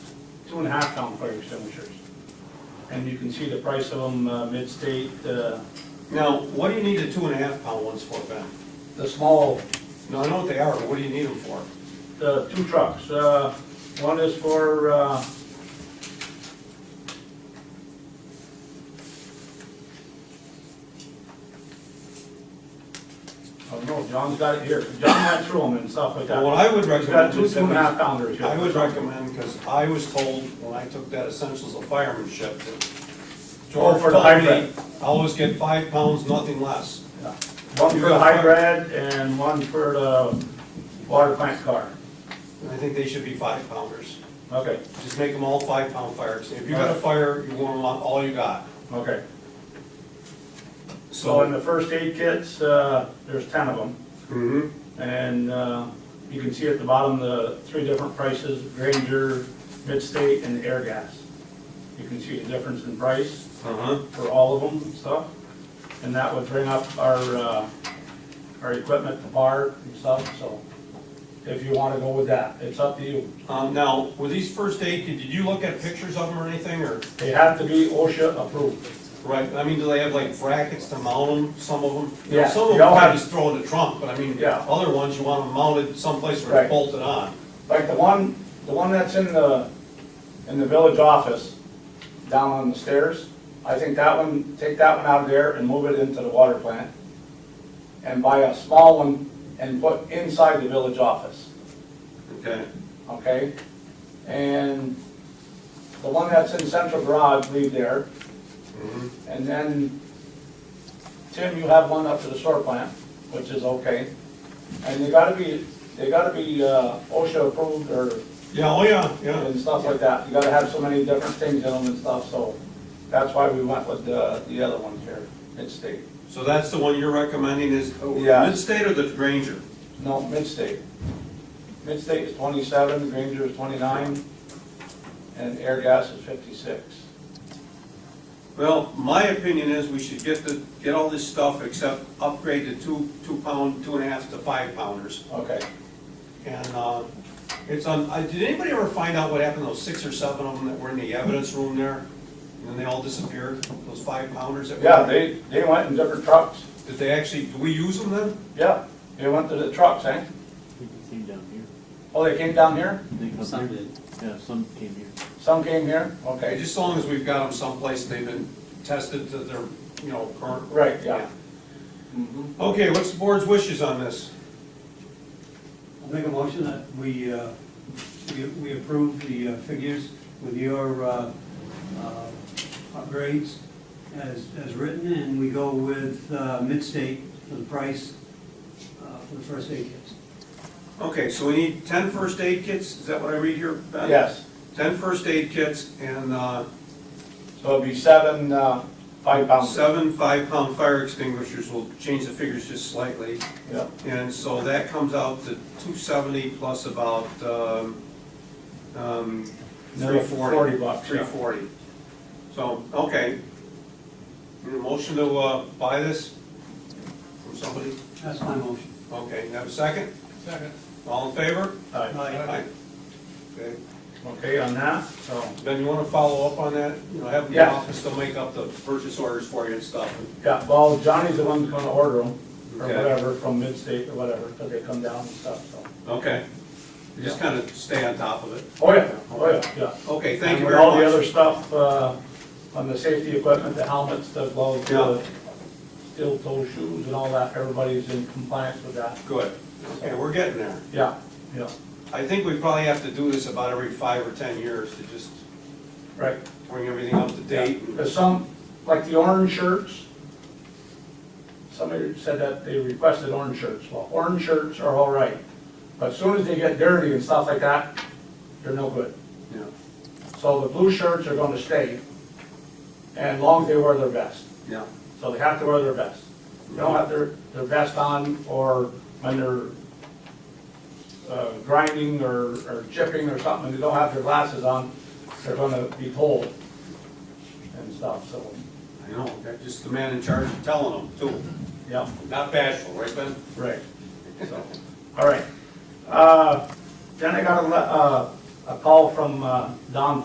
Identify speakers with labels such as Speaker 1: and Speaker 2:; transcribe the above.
Speaker 1: two and a half pound fire extinguishers. And you can see the price of them, uh, mid-state, uh,
Speaker 2: Now, what do you need the two and a half pound ones for, Ben?
Speaker 1: the small,
Speaker 2: No, I know what they are, but what do you need them for?
Speaker 1: the two trucks. Uh, one is for, uh, oh, no, John's got it here. John went through them and stuff like that.
Speaker 2: Well, what I would
Speaker 1: He's got
Speaker 2: recommend
Speaker 1: two,
Speaker 2: is
Speaker 1: two and a half
Speaker 2: that
Speaker 1: pounders.
Speaker 2: we,
Speaker 1: here.
Speaker 2: I would recommend, because I was told when I took that essentials of firemanship that
Speaker 1: Oh,
Speaker 2: George
Speaker 1: for the
Speaker 2: told me,
Speaker 1: hybrid.
Speaker 2: always get five pounds, nothing less.
Speaker 1: Yeah. One for the hybrid and one for the water plant car.
Speaker 2: And I think they should be five pounders.
Speaker 1: Okay,
Speaker 2: Just make them all five pound fires. If you got a fire, you want them on all you got.
Speaker 1: okay. So in
Speaker 2: So.
Speaker 1: the first aid kits, uh, there's ten of them.
Speaker 2: Mhm.
Speaker 1: And uh, you can see at the bottom the three different prices, Granger, Midstate, and Air Gas. You can see the difference in price
Speaker 2: Uh-huh.
Speaker 1: for all of them and stuff. And that would bring up our, uh, our equipment, the bar and stuff, so if you want to go with that, it's up to you.
Speaker 2: Um, now, were these first aid, did you look at pictures of them or anything, or,
Speaker 1: They have to be OSHA approved.
Speaker 2: right, I mean, do they have like brackets to mount them, some of them? You know,
Speaker 1: Yeah,
Speaker 2: Some of
Speaker 1: they
Speaker 2: them
Speaker 1: all
Speaker 2: I
Speaker 1: have-
Speaker 2: just throw in the trunk, but I mean,
Speaker 1: Yeah.
Speaker 2: other ones, you want them mounted someplace where they're
Speaker 1: Right.
Speaker 2: bolted on.
Speaker 1: Like the one, the one that's in the, in the village office, down on the stairs, I think that one, take that one out of there and move it into the water plant. And buy a small one and put inside the village office,
Speaker 2: Okay.
Speaker 1: okay? And the one that's in central garage, leave there. And then, Tim, you have one up to the sewer plant, which is okay. And they gotta be, they gotta be uh, OSHA approved or
Speaker 2: Yeah, oh, yeah, yeah,
Speaker 1: and stuff like that. You gotta have so many different things in them and stuff, so that's why we went with the, the other ones here, mid-state.
Speaker 2: so that's the one you're recommending is,
Speaker 1: Oh, Yeah.
Speaker 2: mid-state or the Granger?
Speaker 1: No, mid-state. Mid-state is twenty-seven, Granger is twenty-nine, and air gas is fifty-six.
Speaker 2: Well, my opinion is we should get the, get all this stuff except upgrade the two, two pound, two and a half to five pounders.
Speaker 1: Okay,
Speaker 2: And, uh, it's on, I, did anybody ever find out what happened to those six or seven of them that were in the evidence room there? And then they all disappeared, those five pounders that were?
Speaker 1: yeah, they, they went in different trucks.
Speaker 2: Did they actually, do we use them then?
Speaker 1: Yeah, they went to the trucks, eh?
Speaker 3: We came down here.
Speaker 1: Oh, they came down here?
Speaker 3: They come
Speaker 4: Some
Speaker 3: here.
Speaker 4: did.
Speaker 3: Yeah, some came here.
Speaker 1: Some came here?
Speaker 2: Okay,
Speaker 1: Okay,
Speaker 2: just as long as we've got them someplace and they've been tested to their, you know, current.
Speaker 1: right, yeah. Mhm.
Speaker 2: Okay, what's the board's wishes on this?
Speaker 5: I'll make a motion that we, uh, we- we approve the uh, figures with your uh, uh, upgrades as, as written, and we go with uh, Midstate for the price uh, for the first aid kits.
Speaker 2: Okay, so we need ten first aid kits, is that what I read here, Ben?
Speaker 1: Yes,
Speaker 2: Ten first aid kits and, uh,
Speaker 1: so it'd be seven, uh, five pounds.
Speaker 2: seven five-pound fire extinguishers, we'll change the figures just slightly.
Speaker 1: Yeah,
Speaker 2: And so that comes out to two seventy plus about, um, um,
Speaker 1: Another
Speaker 2: three forty.
Speaker 1: 40 bucks, yeah.
Speaker 2: Three forty. So, okay. Need a Motion to, uh, buy this from somebody?
Speaker 5: That's my motion.
Speaker 2: Okay, you have a second? Second. All in favor?
Speaker 1: all right.
Speaker 2: Aye. Okay,
Speaker 1: Okay, on that, so.
Speaker 2: Ben, you wanna follow up on that? You know, have the
Speaker 1: Yeah.
Speaker 2: office, they'll make up the purchase orders for you and stuff.
Speaker 1: Yeah, well, Johnny's the one that's gonna order them, or
Speaker 2: Okay.
Speaker 1: whatever, from Midstate or whatever, because they come down and stuff, so.
Speaker 2: Okay. Just kinda stay on top of it.
Speaker 1: Oh, yeah, oh, yeah, yeah.
Speaker 2: Okay, thank you
Speaker 1: And
Speaker 2: very
Speaker 1: All
Speaker 2: much.
Speaker 1: the other stuff, uh, on the safety equipment, the helmets, the gloves, the
Speaker 2: Yeah.
Speaker 1: steel toe shoes and all that, everybody's in compliance with that.
Speaker 2: Good. Okay, we're getting there.
Speaker 1: Yeah, yeah,
Speaker 2: I think we probably have to do this about every five or 10 years to just
Speaker 1: right.
Speaker 2: bring everything up to date.
Speaker 1: Because some, like the orange shirts, somebody said that they requested orange shirts. Well, orange shirts are all right, but as soon as they get dirty and stuff like that, they're no good.
Speaker 2: Yeah.
Speaker 1: So the blue shirts are gonna stay, and as long as they wear their vest.
Speaker 2: Yeah.
Speaker 1: So they have to wear their vest. They don't have their, their vest on, or when they're uh, grinding or, or chipping or something, they don't have their glasses on, they're gonna be cold and stuff, so,
Speaker 2: I know, that's just the man in charge of telling them too.
Speaker 1: yeah,
Speaker 2: Not bashful, right, Ben?
Speaker 1: right. So, all right. Uh, Then I got a, le- uh, a call from uh, Don